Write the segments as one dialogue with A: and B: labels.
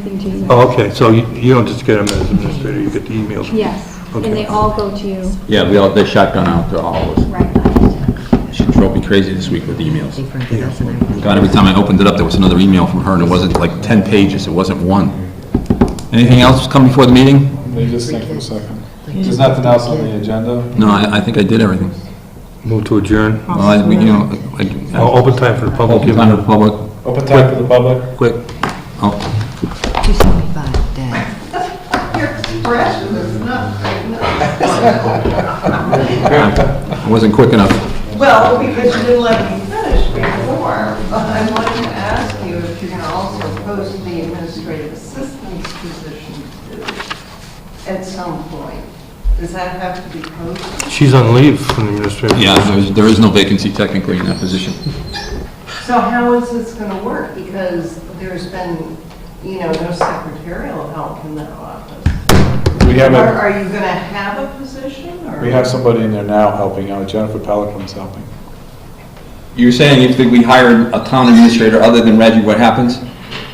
A: everything to you.
B: Oh, okay, so you you don't just get them as administrator, you get the emails?
A: Yes,
B: Okay.
A: and they all go to you,
C: Yeah, we all, they shotgun out to all of us.
A: right?
C: She drove me crazy this week with emails.
D: in front of us, and I
C: God, every time I opened it up, there was another email from her, and it wasn't like 10 pages, it wasn't one. Anything else come before the meeting?
E: Let me just think for a second. There's nothing else on the agenda?
C: No, I, I think I did everything.
B: Move to adjourn.
C: Well, I, we- you know, I-
B: Oh, Open time for the public.
C: Open time to the public,
E: Open time for the public?
C: quick. Oh.
D: 275, Dad.
C: I wasn't quick enough.
F: Well, because you didn't let me finish before, but I wanted to ask you if you can also post the administrative assistant's position too, at some point. Does that have to be posted?
B: She's on leave from the administrator.
C: Yeah, there's, there is no vacancy technically in that position.
F: So how is this going to work? Because there's been, you know, no secretarial help in that office.
E: We have,
F: Are
E: a
F: are you going to have a position or?
E: we have somebody in there now helping out, Jennifer Pelican's helping.
C: You're saying if we hire a town administrator other than Reggie, what happens?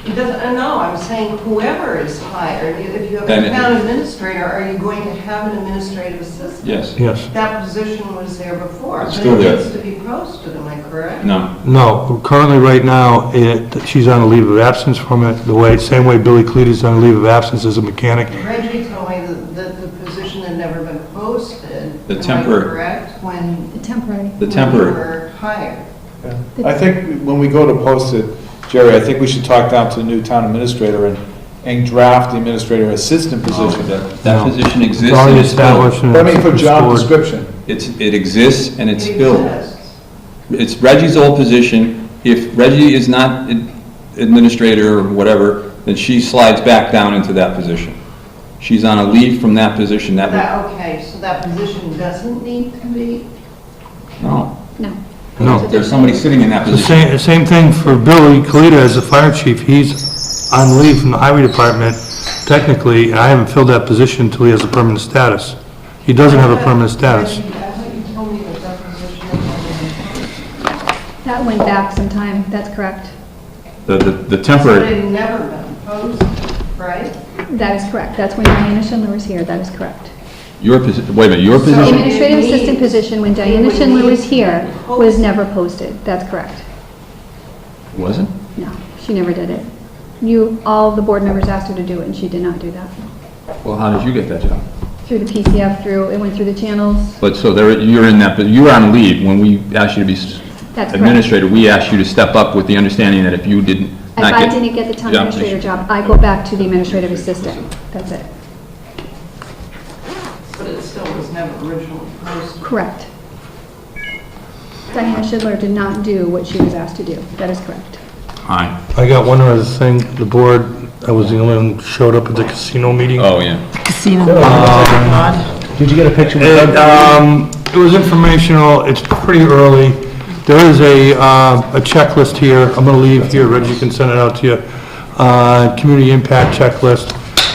F: It doesn't- uh, No, I'm saying whoever is hired, if you have
C: Then
F: a
C: it-
F: town administrator, are you going to have an administrative assistant?
C: Yes.
B: Yes.
F: That position was there before.
C: It's still there.
F: But it needs to be posted, am I correct?
C: No.
B: No, currently, right now, it, she's on a leave of absence from it, the way, same way Billy Cleaty's on a leave of absence as a mechanic.
F: Reggie told me that- that the position had never been posted.
C: The
F: Am
C: temporary.
F: I correct? When
A: The temporary.
C: The
F: when you
C: temporary.
F: were hired.
E: I think when we go to post it, Jerry, I think we should talk down to the new town administrator and, and draft the administrator assistant position.
C: That that
B: No.
C: position
B: It's
C: exists. and
B: already
C: it's filled.
B: established
G: Hmm.
B: and
E: But I mean, for
B: it's
E: job
B: restored.
E: description.
C: It's, it exists and it's
F: It
C: filled.
F: exists.
C: It's Reggie's old position. If Reggie is not ad- administrator or whatever, then she slides back down into that position. She's on a leave from that position. That,
F: That, okay, so that position doesn't need to be,
C: would- no,
A: No.
B: No.
C: there's somebody sitting in that
B: The
C: position.
B: same, same thing for Billy Cleety as the fire chief, he's on leave from the highway department technically, and I haven't filled that position until he has a permanent status. He doesn't have a permanent status.
F: Reggie, I thought you told me that that position had never been posted.
A: That went back some time, that's correct.
C: The, the the
F: So
C: temporary,
F: it had never been posted, right?
A: That is correct, that's when Diana Schindler was here, that is correct.
C: your position, wait a minute, your
F: So-
A: The
C: position?
A: administrative
F: It needs-
A: assistant position, when
F: it
A: Diana
F: would
A: Schindler
F: need
A: was
F: to
A: here,
F: be
A: was
F: posted.
A: never posted, that's correct.
C: Wasn't?
A: No, she never did it. You, all the board members asked her to do it, and she did not do that.
C: Well, how did you get that job?
A: Through the PCF, through, it went through the channels,
C: But so there, you're in that, but you were on leave when we asked you to be s-
A: That's correct.
C: administrator. We asked you to step up with the understanding that if you didn't
A: If
C: not
A: I
C: get-
A: didn't get the town
C: Yeah,
A: administrator job, I go back to the administrative assistant. That's it.
F: But it still was never originally posted.
A: Correct. Diana Schindler did not do what she was asked to do. That is correct.
C: All right.
B: I got one other thing, the board, I was the only one who showed up at the casino meeting.
C: Oh, yeah.
G: Did you get a picture with
B: It, um, it was informational, it's pretty early. There is a, uh, a checklist here, I'm gonna leave here, Reggie can send it out to you. Uh, community impact checklist,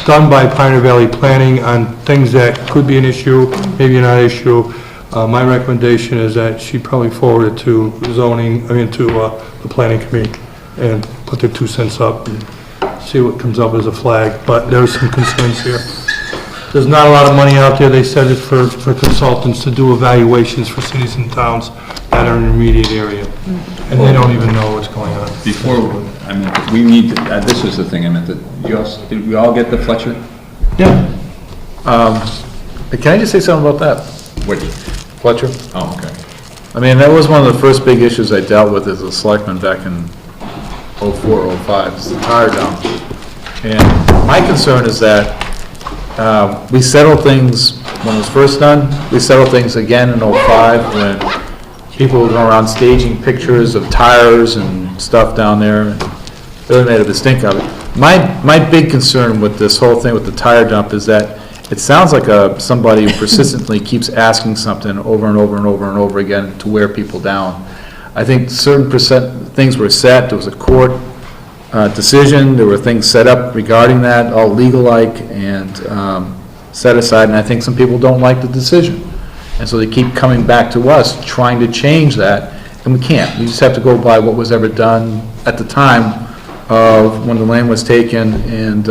B: done by Pioneer Valley Planning on things that could be an issue, maybe not an issue. Uh, my recommendation is that she probably forward it to zoning, I mean, to, uh, the planning committee and put their two cents up and see what comes up as a flag, but there's some concerns here. There's not a lot of money out there, they said it's for, for consultants to do evaluations for cities and towns that are in the immediate area, and they don't even know what's going on.
C: Before, I mean, we need, to- uh, this was the thing I meant, that you all, did we all get the Fletcher?
G: Yeah. Can I just say something about that,
C: What,
G: Fletcher?
C: oh, okay.
G: I mean, that was one of the first big issues I dealt with as a selectman back in '04, '05, is the tire dump. And my concern is that um, we settle things when it was first done, we settle things again in '05 when people were going around staging pictures of tires and stuff down there, and really made a stink of it. My, my big concern with this whole thing with the tire dump is that it sounds like a, somebody persistently keeps asking something over and over and over and over again to wear people down. I think certain percent, things were set, there was a court uh, decision, there were things set up regarding that, all legal-like and um, set aside, and I think some people don't like the decision. And so they keep coming back to us, trying to change that, and we can't. We just have to go by what was ever done at the time of when the land was taken and